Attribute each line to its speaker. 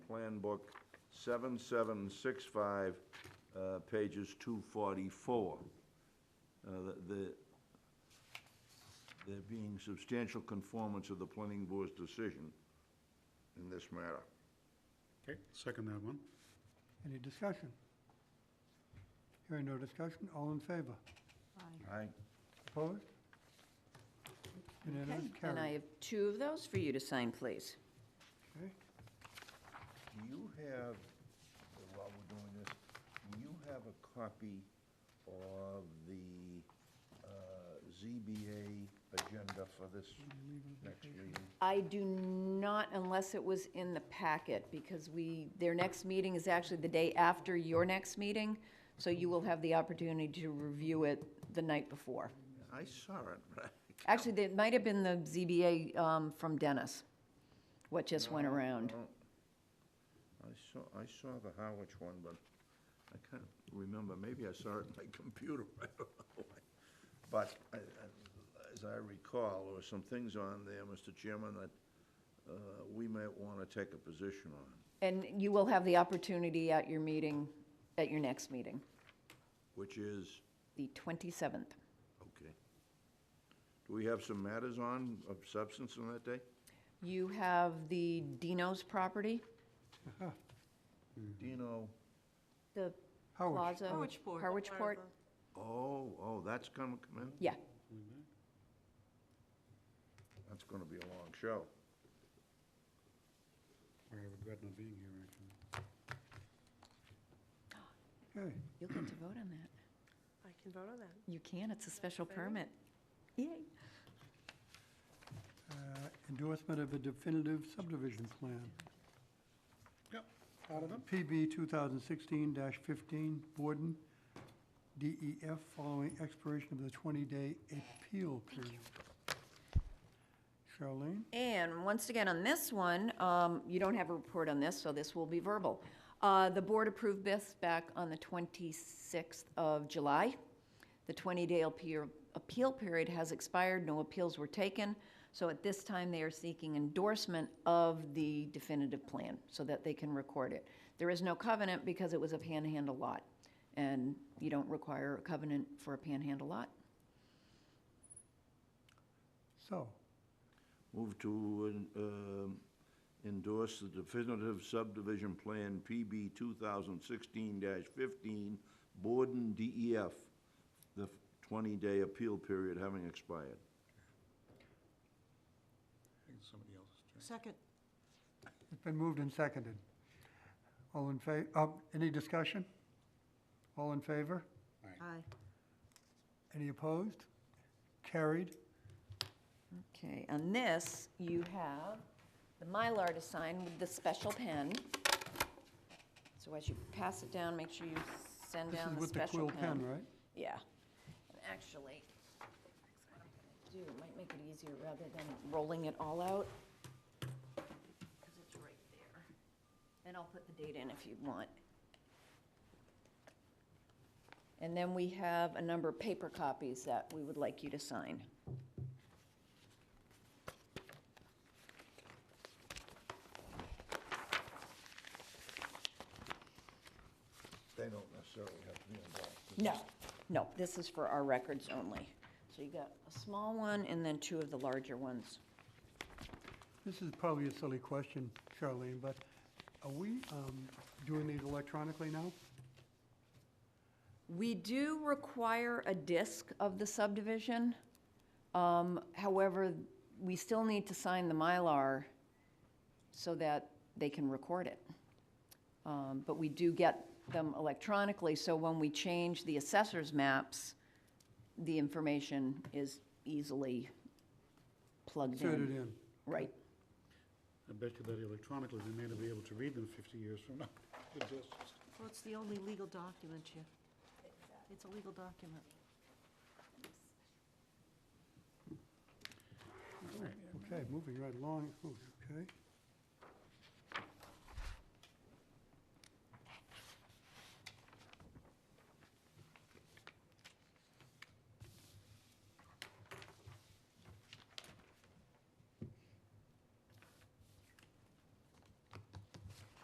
Speaker 1: Plan Book 7765, uh, pages 244. Uh, the- the- There being substantial conformance of the planning board's decision in this matter.
Speaker 2: Okay, second that one.
Speaker 3: Any discussion? Hearing no discussion, all in favor?
Speaker 4: Aye.
Speaker 1: Aye.
Speaker 3: Opposed? Unanimous,
Speaker 4: Okay, And I
Speaker 3: carried.
Speaker 4: have two of those for you to sign, please.
Speaker 3: Okay.
Speaker 1: Do you have, while we're doing this, do you have a copy of the uh, ZBA agenda for this next meeting?
Speaker 4: I do not, unless it was in the packet, because we, their next meeting is actually the day after your next meeting, so you will have the opportunity to review it the night before.
Speaker 1: I saw it, but I-
Speaker 4: Actually, it might have been the ZBA um, from Dennis, what just went around.
Speaker 1: Oh. I saw, I saw the Harwich one, but I can't remember. Maybe I saw it on my computer, I don't know. But I- I- as I recall, there were some things on there, Mr. Chairman, that uh, we might want to take a position on.
Speaker 4: And you will have the opportunity at your meeting, at your next meeting,
Speaker 1: which is,
Speaker 4: the 27th.
Speaker 1: okay. Do we have some matters on of substance on that day?
Speaker 4: You have the Dino's property,
Speaker 1: Dino,
Speaker 4: the
Speaker 3: Howard.
Speaker 4: plaza.
Speaker 5: Harwichport.
Speaker 4: Harwichport,
Speaker 1: oh, oh, that's gonna come in?
Speaker 4: yeah.
Speaker 1: That's gonna be a long show.
Speaker 2: I regret not being here, actually.
Speaker 3: Okay,
Speaker 4: You'll get to vote on that.
Speaker 5: I can vote on that.
Speaker 4: You can, it's a special permit. Yay.
Speaker 3: uh, endorsement of a definitive subdivision plan.
Speaker 2: Yep, all of them?
Speaker 3: PB 2016-15, Borden, DEF, following expiration of the 20-day appeal period. Charlene?
Speaker 4: And once again, on this one, um, you don't have a report on this, so this will be verbal. Uh, The board approved this back on the 26th of July. The 20-day appeal appeal period has expired, no appeals were taken. So at this time, they are seeking endorsement of the definitive plan so that they can record it. There is no covenant because it was a panhandle lot, and you don't require a covenant for a panhandle lot.
Speaker 3: So,
Speaker 1: Move to um, endorse the definitive subdivision plan PB 2016-15, Borden DEF, the 20-day appeal period having expired.
Speaker 2: I think somebody else is trying.
Speaker 5: Second.
Speaker 3: it's been moved and seconded. All in fa, uh, any discussion? All in favor?
Speaker 5: Aye.
Speaker 3: Any opposed? Carried.
Speaker 4: Okay, on this, you have the Mylar to sign with the special pen. So as you pass it down, make sure you send
Speaker 3: This
Speaker 4: down
Speaker 3: is
Speaker 4: the
Speaker 3: with the
Speaker 4: special
Speaker 3: quill
Speaker 4: pen.
Speaker 3: pen, right?
Speaker 4: Yeah. And Actually, what I'm gonna do, might make it easier rather than rolling it all out. Because it's right there. And I'll put the date in if you want. And then we have a number of paper copies that we would like you to sign.
Speaker 1: They don't necessarily have to be involved.
Speaker 4: No, no, this is for our records only. So you got a small one and then two of the larger ones.
Speaker 3: This is probably a silly question, Charlene, but are we um, doing these electronically now?
Speaker 4: We do require a disc of the subdivision. Um, However, we still need to sign the Mylar so that they can record it. Um, But we do get them electronically, so when we change the assessor's maps, the information is easily plugged
Speaker 3: Insert it
Speaker 4: in.
Speaker 3: in.
Speaker 4: Right.
Speaker 2: I bet you that electronically, they may not be able to read them 50 years from now. It just-
Speaker 5: Well, it's the only legal document you, it's a legal document.
Speaker 3: Okay, moving right along. Ooh, Okay.